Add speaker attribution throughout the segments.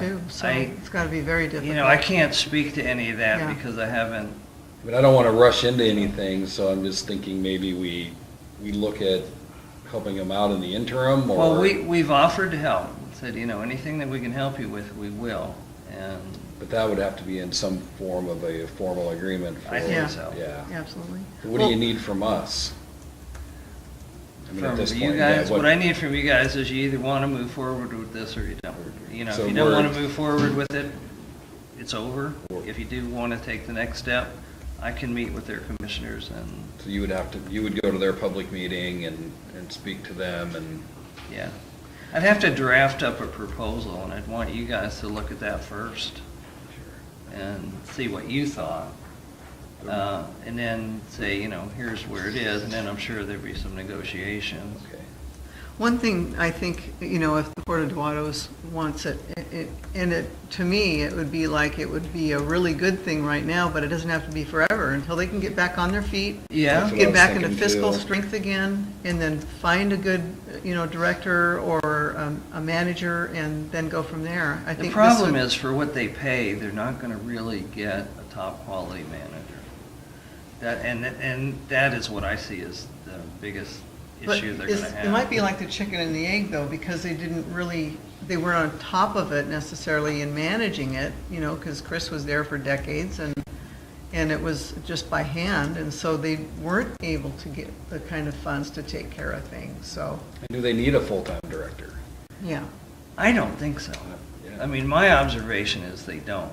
Speaker 1: too, so
Speaker 2: Um, I-
Speaker 1: it's got to be very difficult.
Speaker 2: You know, I can't speak to any of
Speaker 1: Yeah.
Speaker 2: that because I haven't,
Speaker 3: I mean, I don't want to rush into anything, so I'm just thinking maybe we, we look at helping them out in the interim or.
Speaker 2: well, we, we've offered to help. Said, you know, anything that we can help you with, we will. And
Speaker 3: But that would have to be in some form of a formal agreement for.
Speaker 2: I
Speaker 1: think
Speaker 3: yeah.
Speaker 2: so.
Speaker 3: Yeah.
Speaker 1: Absolutely.
Speaker 3: What do you need from us? I mean, at
Speaker 2: from
Speaker 3: this
Speaker 2: you
Speaker 3: point, yeah,
Speaker 2: guys, what I need from you guys is you either want to move forward with this or you don't. You know,
Speaker 3: So
Speaker 2: if you don't want to
Speaker 3: we're-
Speaker 2: move forward with it, it's over. If you do want to take the next step, I can meet with their commissioners and,
Speaker 3: So you would have to, you would go to their public meeting and, and speak to them and,
Speaker 2: yeah. I'd have to draft up a proposal and I'd want you guys to look at that first. and see what you thought. Uh, And then say, you know, here's where it is, and then I'm sure there'd be some negotiations.
Speaker 3: okay.
Speaker 1: One thing I think, you know, if the Port of Duatos wants it, it- it, and it, to me, it would be like, it would be a really good thing right now, but it doesn't have to be forever until they can get back on their feet,
Speaker 2: Yeah,
Speaker 3: That's what I
Speaker 1: get
Speaker 3: was
Speaker 1: back into
Speaker 3: thinking,
Speaker 1: fiscal
Speaker 3: too.
Speaker 1: strength again, and then find a good, you know, director or um, a manager, and then go from there. I
Speaker 2: the
Speaker 1: think this
Speaker 2: problem
Speaker 1: would-
Speaker 2: is, for what they pay, they're not gonna really get a top-quality manager. That, and, and that is what I see as the biggest
Speaker 1: But
Speaker 2: issue they're
Speaker 1: is-
Speaker 2: gonna have.
Speaker 1: It might be like the chicken and the egg, though, because they didn't really, they weren't on top of it necessarily in managing it, you know, because Chris was there for decades, and, and it was just by hand, and so they weren't able to get the kind of funds to take care of things, so,
Speaker 3: And do they need a full-time director?
Speaker 1: yeah.
Speaker 2: I don't think so.
Speaker 3: Yeah.
Speaker 2: I mean, my observation is they don't.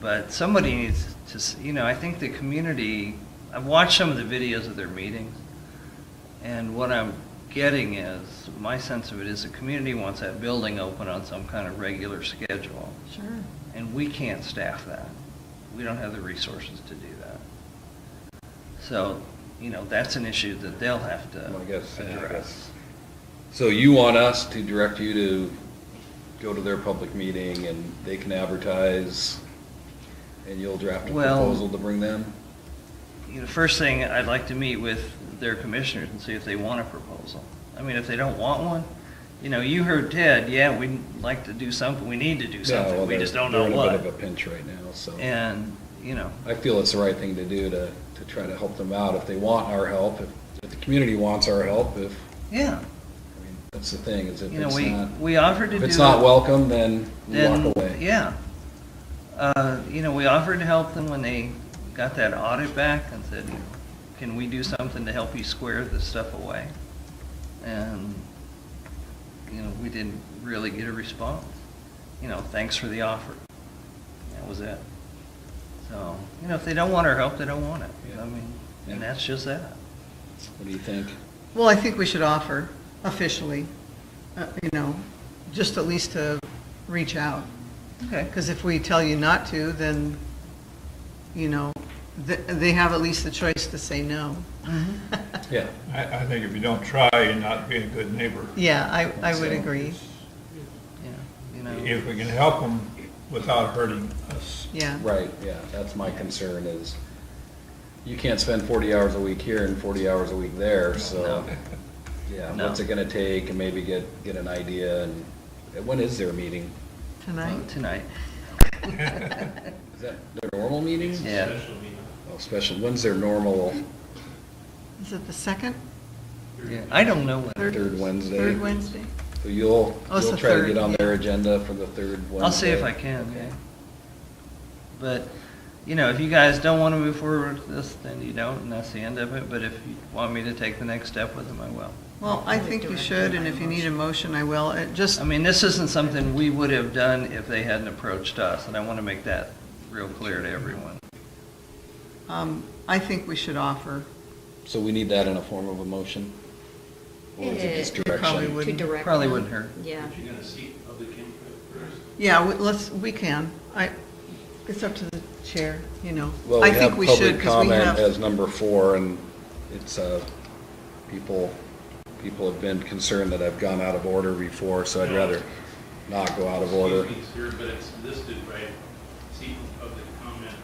Speaker 2: But somebody needs to, s- you know, I think the community, I've watched some of the videos of their meetings, and what I'm getting is, my sense of it is the community wants that building open on some kind of regular schedule,
Speaker 1: Sure.
Speaker 2: and we can't staff that. We don't have the resources to do that. So, you know, that's an issue that they'll have to
Speaker 3: Well, I guess, yeah, I
Speaker 2: address.
Speaker 3: guess. So you want us to direct you to go to their public meeting and they can advertise and you'll draft a
Speaker 2: Well-
Speaker 3: proposal to bring them?
Speaker 2: You know, first thing, I'd like to meet with their commissioners and see if they want a proposal. I mean, if they don't want one, you know, you heard Ted, yeah, we'd like to do something, we need to do
Speaker 3: Yeah,
Speaker 2: something,
Speaker 3: well,
Speaker 2: we just
Speaker 3: they're-
Speaker 2: don't know
Speaker 3: They're in a bit of a
Speaker 2: what.
Speaker 3: pinch right now, so.
Speaker 2: And, you know,
Speaker 3: I feel it's the right thing to do to, to try to help them out if they want our help, if, if the community wants our help, if,
Speaker 2: yeah,
Speaker 3: I mean, that's the thing, is if
Speaker 2: you know,
Speaker 3: it's
Speaker 2: we,
Speaker 3: not,
Speaker 2: we offered to
Speaker 3: if
Speaker 2: do.
Speaker 3: it's not welcome, then we
Speaker 2: then,
Speaker 3: walk away.
Speaker 2: Yeah. Uh, You know, we offered to help them when they got that audit back and said, you know, can we do something to help you square this stuff away? And, you know, we didn't really get a response. You know, thanks for the offer. That was it. So, you know, if they don't want our help, they don't want it.
Speaker 3: Yeah.
Speaker 2: I mean, and
Speaker 3: Yeah.
Speaker 2: that's just that.
Speaker 3: What do you think?
Speaker 1: Well, I think we should offer officially, uh, you know, just at least to reach out.
Speaker 2: Okay.
Speaker 1: Because if we tell you not to, then, you know, th- they have at least the choice to say no.
Speaker 3: Yeah.
Speaker 4: I, I think if you don't try, you're not being a good neighbor.
Speaker 1: Yeah, I, I would
Speaker 3: So-
Speaker 1: agree,
Speaker 2: Yeah, you know,
Speaker 4: If we can help them without hurting us.
Speaker 1: yeah.
Speaker 3: Right, yeah, that's my concern is, you can't spend forty hours a week here and forty hours a week there, so, yeah,
Speaker 2: No.
Speaker 3: what's it gonna take, and maybe get, get an idea, and, and when is their meeting?
Speaker 1: Tonight?
Speaker 2: tonight.
Speaker 3: Is that their normal meeting?
Speaker 2: Yeah.
Speaker 3: Oh, special, when's their normal,
Speaker 1: Is it the second,
Speaker 2: Yeah. I don't know when.
Speaker 3: third Wednesday?
Speaker 1: third Wednesday?
Speaker 3: So you'll,
Speaker 1: Oh, it's
Speaker 3: you'll
Speaker 1: the
Speaker 3: try to
Speaker 1: third,
Speaker 3: get on their
Speaker 1: yeah.
Speaker 3: agenda for the third Wednesday?
Speaker 2: I'll see if I can, yeah. But, you know, if you guys don't want to move forward with this, then you don't, and that's the end of it. But if you want me to take the next step with them, I will.
Speaker 1: Well, I think you should, and if you need a motion, I will. It just,
Speaker 2: I mean, this isn't something we would have done if they hadn't approached us, and I want to make that real clear to everyone.
Speaker 1: um, I think we should offer.
Speaker 3: So we need that in a form of a motion? Or is it just
Speaker 1: It probably
Speaker 3: direction?
Speaker 1: would.
Speaker 5: To
Speaker 1: wouldn't-
Speaker 5: direct.
Speaker 2: Probably
Speaker 5: them.
Speaker 2: wouldn't hurt.
Speaker 5: Yeah.
Speaker 6: You're gonna seek public input first.
Speaker 1: Yeah, we- let's, we can. I, it's up to the chair, you know.
Speaker 3: Well,
Speaker 1: I
Speaker 3: we
Speaker 1: think
Speaker 3: have
Speaker 1: we should
Speaker 3: public
Speaker 1: 'cause we
Speaker 3: comment
Speaker 1: have-
Speaker 3: as number four, and it's, uh, people, people have been concerned that I've gone out of order before, so I'd
Speaker 6: No.
Speaker 3: rather not go out of order.
Speaker 6: Excuse me, sir, but it's listed right, seek public comment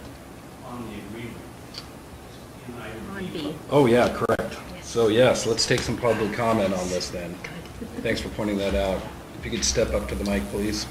Speaker 6: on the agreement. In
Speaker 5: On
Speaker 6: item
Speaker 5: B.
Speaker 3: Oh, yeah, correct. So yes, let's take some public comment on this then. Thanks for pointing that out. If you could step up to the mic, please.